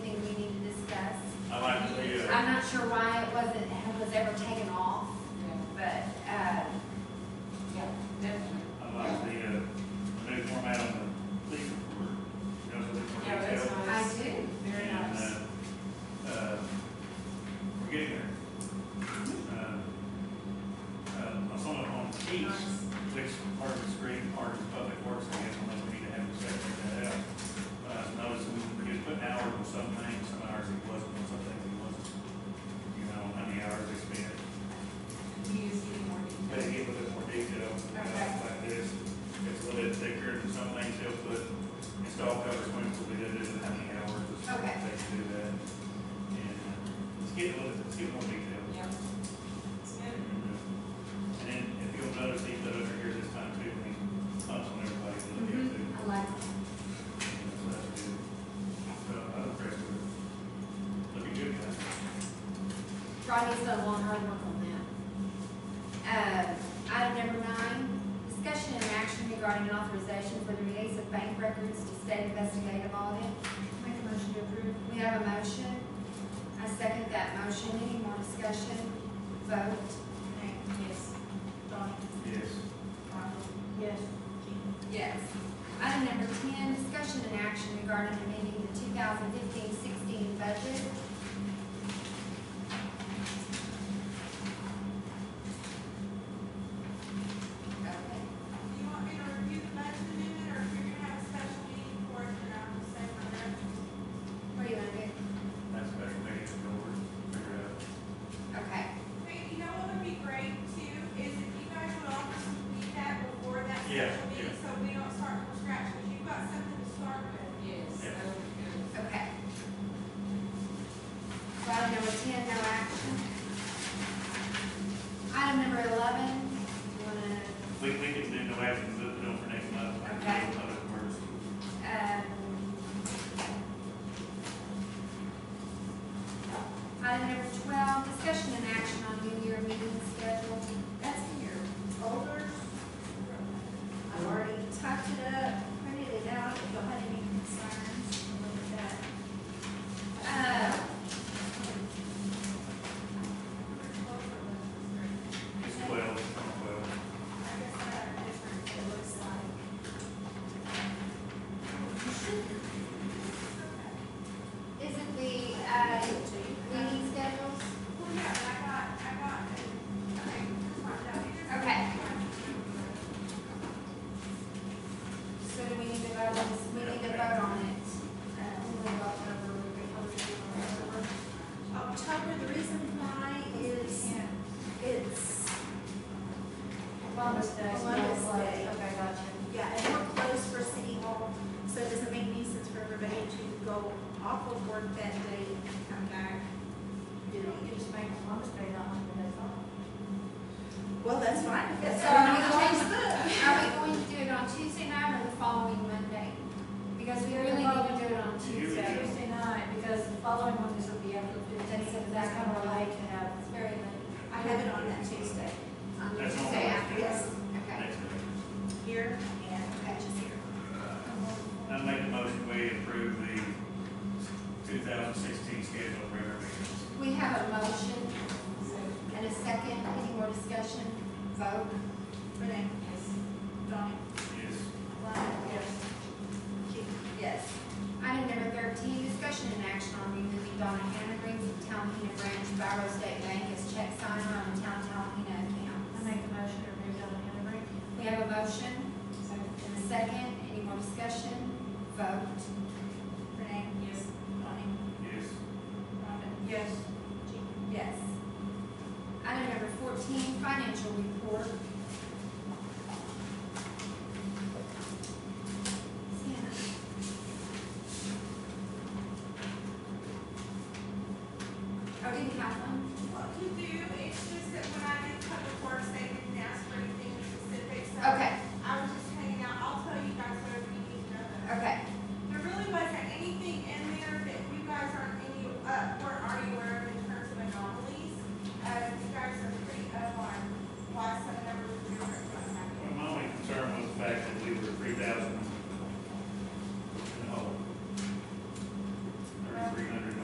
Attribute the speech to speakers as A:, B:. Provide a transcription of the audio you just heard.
A: sure why it wasn't, it was ever taken off, but, uh, yeah, definitely.
B: I like the, uh, new format on the police report. That was a little more
C: Yeah,
B: detailed.
C: that's
A: I do.
C: Very
B: And,
C: nice.
B: uh, uh, We're getting there. Uh, uh, I saw it on East, which part of the street, part of public works, I guess, unless we need to have a section that out. But I noticed we just put an hour on some things, some hours it wasn't, on some things it wasn't. You know, how many hours they spent,
C: You just need more
B: but
C: details.
B: it gave a little more detail, you know,
C: Okay.
B: like this. It's a little bit thicker than some things they'll put, install cover swings, we did it in how many hours, it's gonna
A: Okay.
B: take to do that. And uh, let's get a little, let's get more detail.
C: Yeah. It's good.
B: And then if you'll notice, he put over here this time too, when he punched on everybody, so they have to,
A: Mm-hmm. I like,
B: so that's good. So I'm impressed with it. Looking good, guys.
A: Rodney's done a lot of hard work on that. Uh, item number nine, discussion and action regarding an authorization for the release of bank records to state investigative audit. Make a motion to approve. We have a motion. I second that motion. Any more discussion? Vote.
C: Yes. Donnie?
B: Yes.
C: Ronald?
A: Yes.
C: Jean?
A: Yes. Item number ten, discussion and action regarding amending the 2015-16 budget. Okay.
D: Do you want me to review the budget amendment, or if you're gonna have a special meeting for it, then I'll just say for that.
A: What do you want to do?
B: That's better, make it a little word, figure it out.
A: Okay.
D: Hey, you know what would be great too, is if you guys would all just meet that before that
B: Yeah,
D: special meeting, so we don't start from scratch, because you've got something to start with.
C: Yes.
B: Yeah.
C: That would be good.
A: Okay. So Item number ten, no action. Item number eleven, you wanna,
B: We, we can do no action, move it on for next month.
A: Okay.
B: Other words.
A: um. Item number twelve, discussion and action on new year meeting schedule. That's in your folder. I've already typed it up, printed it out, if y'all had any concerns, look at that. Uh,
B: It's twelve, it's not twelve.
A: uh, Is it the, uh, meeting schedules?
D: Well, yeah, but I got, I got, it. okay, just mark that. You just-
A: Okay. So do we need to vote on this, we need to vote on it? Uh, we will vote over, we will vote over.
E: October, the reason why is it's,
A: Columbus Day.
E: Columbus Day.
A: Okay, gotcha.
E: yeah, and we're closed for City Hall, so it doesn't make any sense for everybody to go off of work that day and come back. You know, you just make Columbus Day not Monday, that's Well, that's fine.
A: So are we going, are we going to do it on Tuesday night or the following Monday? Because we really need to do it on
B: Here we
A: Tuesday.
B: go.
F: Tuesday night, because the following one is will be after the fifteenth, and that's kind of late to have,
A: It's very late.
E: I have it on that Tuesday,
A: On
B: That's on
A: Tuesday after,
B: Wednesday.
A: yes, okay.
B: Next month.
E: here and Patches here.
B: I make a motion, we approve the two thousand sixteen schedule for regular meetings.
A: We have a motion and a second, any more discussion, vote?
E: Renee? Donnie?
B: Yes.
F: yes,
A: Yes. Item number thirteen, discussion and action on removing Donna Hannah Green from Talahena Branch Biro State Bank as check signer on the town Talahena
F: I
A: account.
F: make a motion to remove Donna Henry.
A: We have a motion and a second, any more discussion, vote?
E: Renee?
C: Yes.
E: Donnie?
B: Yes.
E: Rhonda?
F: Yes,
A: Yes. Item number fourteen, financial report. Sienna. Oh, didn't have one?
D: What you do, it's just that when I did public works, they didn't ask for anything specific, so.
A: Okay,
D: uh, Uh,